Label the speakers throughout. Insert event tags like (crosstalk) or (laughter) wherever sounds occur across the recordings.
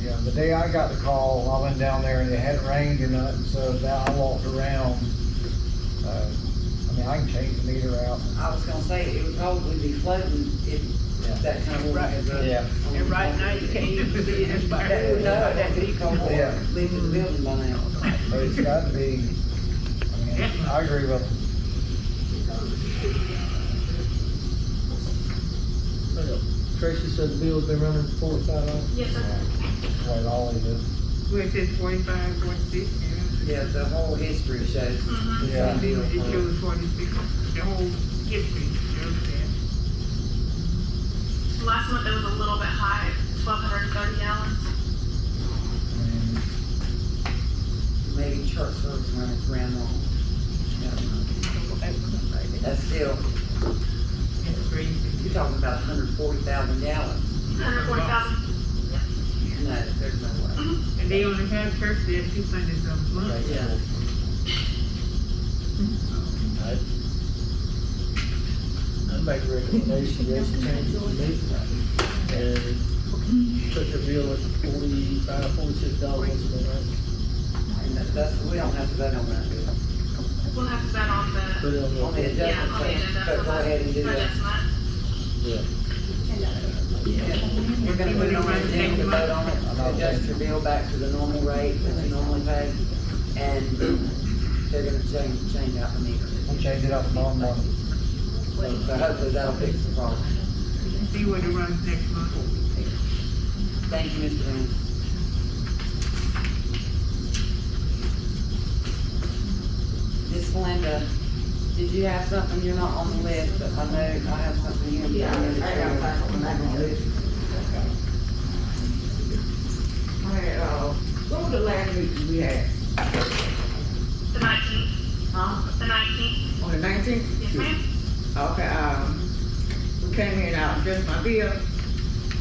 Speaker 1: you know, the day I got the call, I went down there and it hadn't rained or nothing, so now I walked around. Uh, I mean, I can change the meter out.
Speaker 2: I was gonna say, it would probably be flooding if that kind of
Speaker 3: Right.
Speaker 2: water.
Speaker 1: Yeah.
Speaker 3: And right now, you can't even see it, it's
Speaker 2: (laughs)
Speaker 3: about
Speaker 2: That would know, that
Speaker 3: that.
Speaker 2: could be cold water,
Speaker 1: Yeah.
Speaker 2: leaving the building by now.
Speaker 1: But it's got to be, I mean, I agree with them.
Speaker 4: Tracy said the bill's been running four or five hours.
Speaker 5: Yes, sir.
Speaker 1: That's what it always is.
Speaker 3: Which is forty-five, forty-six, and
Speaker 2: Yeah, the whole history shows the
Speaker 5: Mm-hmm.
Speaker 3: Mhm.
Speaker 1: Yeah.
Speaker 2: same deal.
Speaker 3: it
Speaker 2: for-
Speaker 3: shows forty-six, the whole history shows that.
Speaker 5: Last month it was a little bit high, twelve hundred and thirty gallons.
Speaker 1: I mean,
Speaker 2: Maybe church service when it's ran on. Never mind. That's still,
Speaker 3: It's crazy.
Speaker 2: you're talking about hundred forty thousand gallons.
Speaker 5: Hundred forty thousand.
Speaker 2: No, there's no way.
Speaker 3: And they only have church there two Sundays a month.
Speaker 2: Yeah.
Speaker 4: I'd I'd make a recommendation, yes, change the meter. And put the bill at forty-five, forty-six dollars once a month,
Speaker 2: And that- that's, we don't have to vote on that bill.
Speaker 5: We'll have to bet on
Speaker 4: put
Speaker 6: uh,
Speaker 5: the,
Speaker 4: it on
Speaker 2: On
Speaker 4: the.
Speaker 2: the
Speaker 5: yeah,
Speaker 2: adjustment,
Speaker 5: on the
Speaker 2: plan, but
Speaker 5: agenda for
Speaker 2: go ahead and
Speaker 5: the,
Speaker 2: do
Speaker 5: for
Speaker 2: that.
Speaker 5: next month.
Speaker 2: Yeah. We're gonna put it on the agenda, to vote on it, adjust your bill back to the normal rate that you normally pay, and they're gonna change, change out the meter.
Speaker 1: I'll change it up tomorrow morning.
Speaker 2: So so hopefully that'll fix the problem.
Speaker 3: See what it runs next month.
Speaker 2: Thank you, Mr. Van. Miss Linda, did you have something? You're not on the list, but I know I have something here.
Speaker 6: Yeah, I got that one back on this. All right, uh, what was the last meeting we had?
Speaker 5: The nineteenth,
Speaker 6: Huh?
Speaker 5: the nineteenth,
Speaker 6: On the nineteenth?
Speaker 5: yes ma'am?
Speaker 6: Okay, um, we came in, I addressed my bill,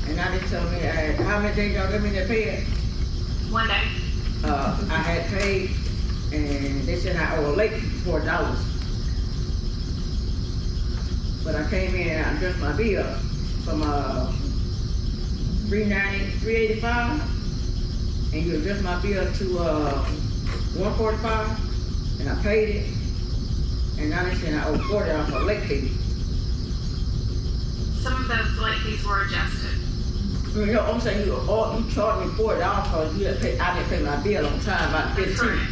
Speaker 6: and I just told me, uh, how many days y'all give me to pay it?
Speaker 5: One day.
Speaker 6: Uh, I had paid, and they said I owe a late four dollars. But I came in and I addressed my bill from, uh, three ninety, three eighty-five, and you addressed my bill to, uh, one forty-five, and I paid it. And now they saying I owe forty dollars for late fee.
Speaker 5: Some of those late fees were adjusted.
Speaker 6: You know, I'm saying you, all, you charged me forty dollars because you didn't pay, I didn't pay my bill on time, about fifteen.
Speaker 5: Correct.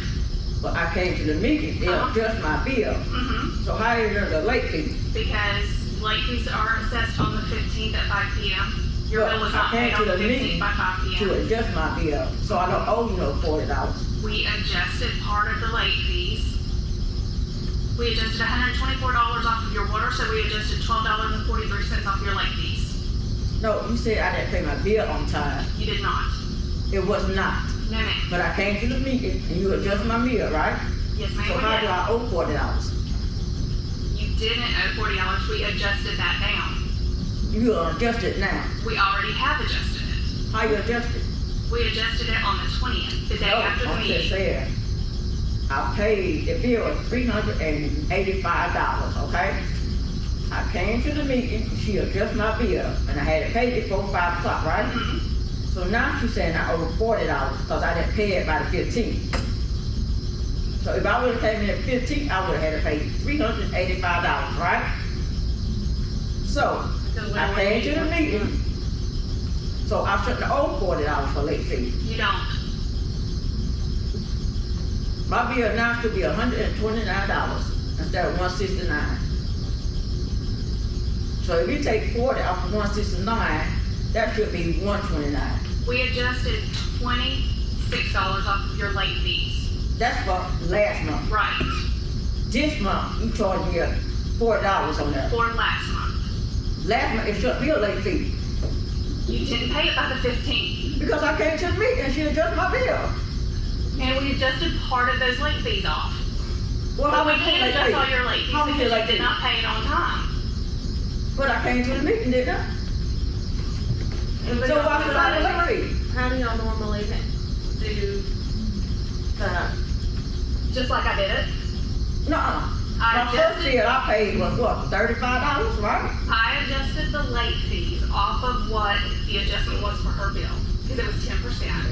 Speaker 6: But I came to the meeting, they
Speaker 5: Uh-huh.
Speaker 6: addressed my bill.
Speaker 5: Mm-hmm,
Speaker 6: So how is there a late fee?
Speaker 5: because late fees are assessed on the fifteenth at five P M. Your
Speaker 6: Well,
Speaker 5: bill was
Speaker 6: I
Speaker 5: not paid
Speaker 6: came to
Speaker 5: on the
Speaker 6: the meeting
Speaker 5: fifteenth by five P M.
Speaker 6: to adjust my bill, so I don't owe you no forty dollars?
Speaker 5: We adjusted part of the late fees. We adjusted hundred and twenty-four dollars off of your water, so we adjusted twelve dollars and forty-three cents off your late fees.
Speaker 6: No, you said I didn't pay my bill on time.
Speaker 5: You did not.
Speaker 6: It was not,
Speaker 5: No, ma'am.
Speaker 6: but I came to the meeting and you adjust my bill, right?
Speaker 5: Yes,
Speaker 6: So how do
Speaker 5: ma'am,
Speaker 6: I owe forty dollars?
Speaker 5: we did. You didn't owe forty dollars. We adjusted that down.
Speaker 6: You adjust it now.
Speaker 5: We already have adjusted it.
Speaker 6: How you adjust it?
Speaker 5: We adjusted it on the twentieth, the day
Speaker 6: No,
Speaker 5: after the
Speaker 6: I'm just
Speaker 5: meeting.
Speaker 6: saying, I paid the bill three hundred and eighty-five dollars, okay? I came to the meeting, she adjusted my bill, and I had it paid before five o'clock, right?
Speaker 5: Mhm.
Speaker 6: So now she's saying I owe forty dollars because I didn't pay it by the fifteenth. So if I would've came in at fifteen, I would've had to pay three hundred and eighty-five dollars, right? So,
Speaker 5: So when
Speaker 6: I
Speaker 5: we-
Speaker 6: paid you the meeting. So I shouldn't owe forty dollars for late fee.
Speaker 5: You don't.
Speaker 6: My bill now should be hundred and twenty-nine dollars instead of one sixty-nine. So if you take forty off of one sixty-nine, that should be one twenty-nine.
Speaker 5: We adjusted twenty-six dollars off of your late fees.
Speaker 6: That's for last month.
Speaker 5: Right.
Speaker 6: This month, you charged me four dollars on that.
Speaker 5: for last month.
Speaker 6: Last month, it should be a late fee,
Speaker 5: You didn't pay it by the fifteenth,
Speaker 6: because I came to the meeting and she adjusted my bill.
Speaker 5: and we adjusted part of those late fees off.
Speaker 6: Well,
Speaker 5: But
Speaker 6: how
Speaker 5: we
Speaker 6: much
Speaker 5: can't
Speaker 6: late
Speaker 5: adjust
Speaker 6: fee?
Speaker 5: all your late fees
Speaker 6: How much
Speaker 5: because
Speaker 6: late
Speaker 5: you
Speaker 6: fee?
Speaker 5: did not pay it on time.
Speaker 6: But I came to the meeting, didn't I? So why should I have a late fee?
Speaker 7: How do y'all normally do the,
Speaker 5: Just like I did it,
Speaker 6: Nuh-uh.
Speaker 5: I
Speaker 6: My first
Speaker 5: adjusted,
Speaker 6: bill I paid was what, thirty-five dollars, right?
Speaker 5: I adjusted the late fees off of what the adjustment was for her bill, because it was ten percent.